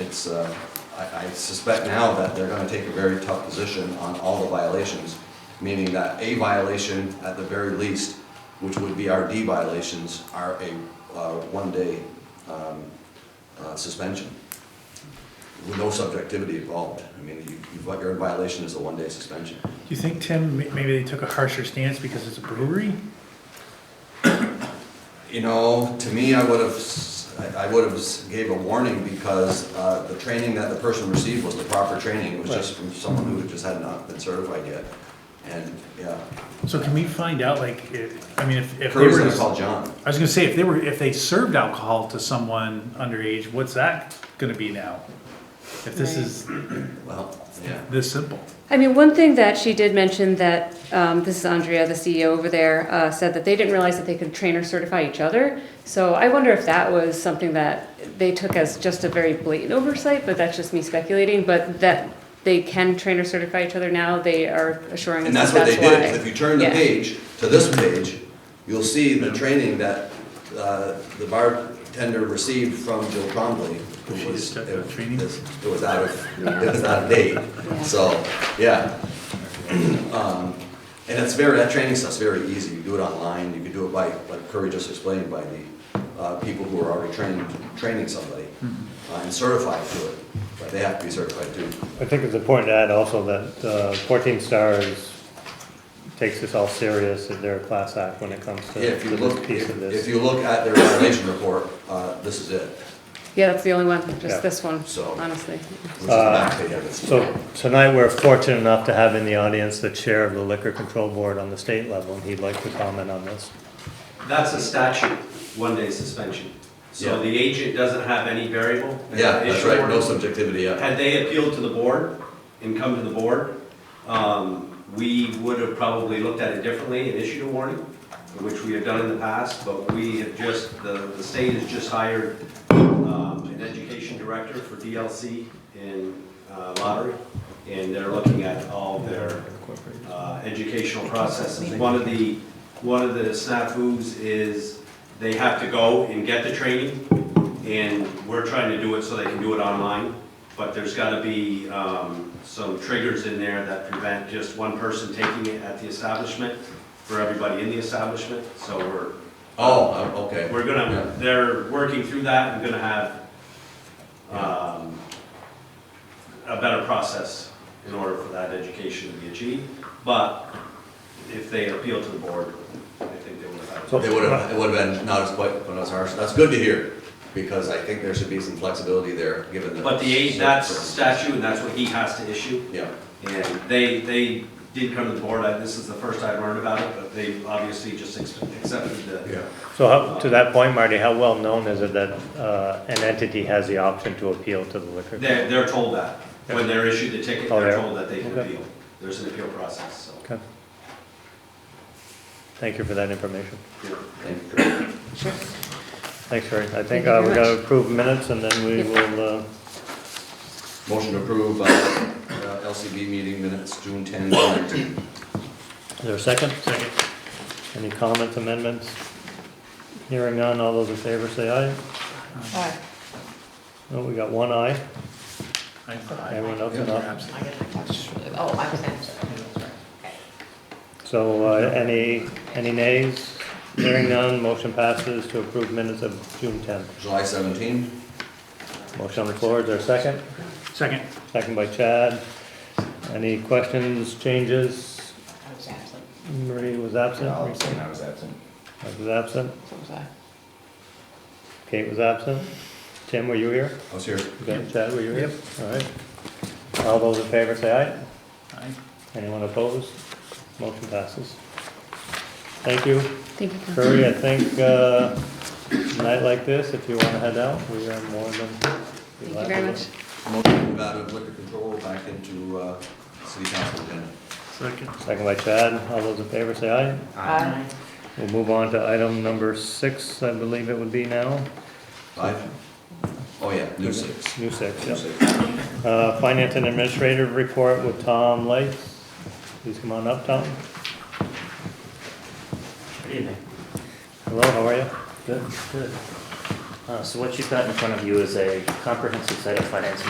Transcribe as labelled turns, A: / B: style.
A: it's, uh, I I suspect now that they're going to take a very tough position on all the violations, meaning that a violation at the very least, which would be our D violations, are a uh, one-day um, uh, suspension with no subjectivity involved. I mean, you- you- what your violation is a one-day suspension.
B: Do you think, Tim, ma- maybe they took a harsher stance because it's a brewery?
A: You know, to me, I would have, s- I would have gave a warning because uh, the training that the person received was the proper training. It was just from someone who just had not been certified yet. And, yeah,
B: So can we find out, like, if, I mean, if, if they
A: Curry's
B: were,
A: gonna
B: to-
A: call John.
B: I was gonna say, if they were, if they served alcohol to someone underage, what's that gonna be now? If this is
A: Well, yeah.
B: this simple?
C: I mean, one thing that she did mention that, um, this is Andrea, the CEO over there, uh, said that they didn't realize that they could train or certify each other. So I wonder if that was something that they took as just a very blatant oversight, but that's just me speculating, but that they can train or certify each other now, they are assuring us
A: And
C: that
A: that's what
C: that's
A: they
C: why.
A: did. If you turn the
C: Yeah.
A: page to this page, you'll see the training that uh, the bartender received from Jill Trombley. who
B: She
A: was-
B: just took the training?
A: It was out of, it was out of date. So, yeah. Um, And it's very, that training stuff's very easy. You do it online, you can do it by, like Curry just explained, by the uh, people who are already trained, training somebody
B: Mm-hmm.
A: uh, and certified to it. But they have to be certified too.
D: I think it's important to add also that uh, 14 Stars takes this all serious, that they're a class act when it comes to
A: Yeah, if you
D: to this
A: look,
D: piece of
A: if if
D: this.
A: you look at their violation report, uh, this is it,
C: Yeah, that's the only one,
D: Yeah.
C: just this one,
A: So-
C: honestly.
A: which is the back page of it.
D: Uh, So tonight, we're fortunate enough to have in the audience the chair of the Liquor Control Board on the state level, and he'd like to comment on this.
E: That's a statute, one-day suspension. So
A: Yeah.
E: the agent doesn't have any variable.
A: Yeah, that's right, no
E: Issue.
A: subjectivity, yeah.
E: Had they appealed to the board and come to the board, um, we would have probably looked at it differently and issued a warning, which we have done in the past, but we have just, the, the state has just hired um, an education director for DLC in uh, lottery, and they're looking at all their uh, educational processes. One of the, one of the snafus is they have to go and get the training, and we're trying to do it so they can do it online, but there's gotta be um, some triggers in there that prevent just one person taking it at the establishment for everybody in the establishment, so we're.
A: Oh, uh, okay.
E: We're gonna, they're working through that, and gonna have, um, a better process in order for that education to be achieved. But if they appeal to the board, I think they would have.
A: It would have, it would have been not as quite, but not as harsh, that's good to hear, because I think there should be some flexibility there, given the.
E: But the age, that's statute, and that's what he has to issue.
A: Yeah,
E: And they, they did come to the board, I- this is the first I've learned about it, but they obviously just ex- accepted the,
A: yeah.
D: So how- to that point, Marty, how well-known is it that uh, an entity has the option to appeal to the liquor?
E: they're, they're told that. When they're issued the ticket,
D: Oh,
E: they're
D: yeah.
E: told that they can
D: Okay.
E: appeal. There's an appeal process, so.
D: Okay. Thank you for that information.
E: yeah.
A: Thank you, Chris.
D: Thanks, Harry. I
C: Thank
D: think
C: you
D: uh,
C: very
D: we're going
C: much.
D: to approve minutes, and then we
C: Yep.
D: will uh,
A: Motion to approve, uh, uh, LCB meeting minutes, June 10, 19.
D: Is there a second? Second. Any comments, amendments? Hearing none, all those in favor say aye.
F: Aye.
D: No, we got one aye,
B: I- I-
D: everyone else is
B: you're
D: not.
B: absent.
F: I get my taxes from the- Oh, I'm sorry.
D: So, uh, any, any nays? Hearing none, motion passes to approve minutes of June tenth.
A: July 17,
D: Motion on the floor, is there a second?
B: Second,
D: Second by Chad. Any questions, changes?
F: I was absent.
D: Marie was absent. I was absent. I was absent.
F: So was I.
D: Kate was absent. Tim, were you here?
A: I was here.
D: Okay, Chad, were you here? All right. All those in favor say aye.
B: Aye.
D: Anyone opposed? Motion passes. Thank you.
C: Thank you. Ken.
D: Curry, I think, uh, a night like this, if you wanna head out, we are more than.
C: Thank you very much.
A: Motion to move out of liquor control back into, uh, city council agenda.
B: second.
D: Second by Chad, all those in favor say aye.
F: Aye.
D: We'll move on to item number six, I believe it would be now.
A: Five? Oh, yeah, new six.
D: New six,
A: New
D: yep.
A: six.
D: Uh, Finance and Administrative Report with Tom Lights. Please come on up, Tom. Hello, how are you? Good, good. Uh, So what you've got in front of you is a comprehensive set of financing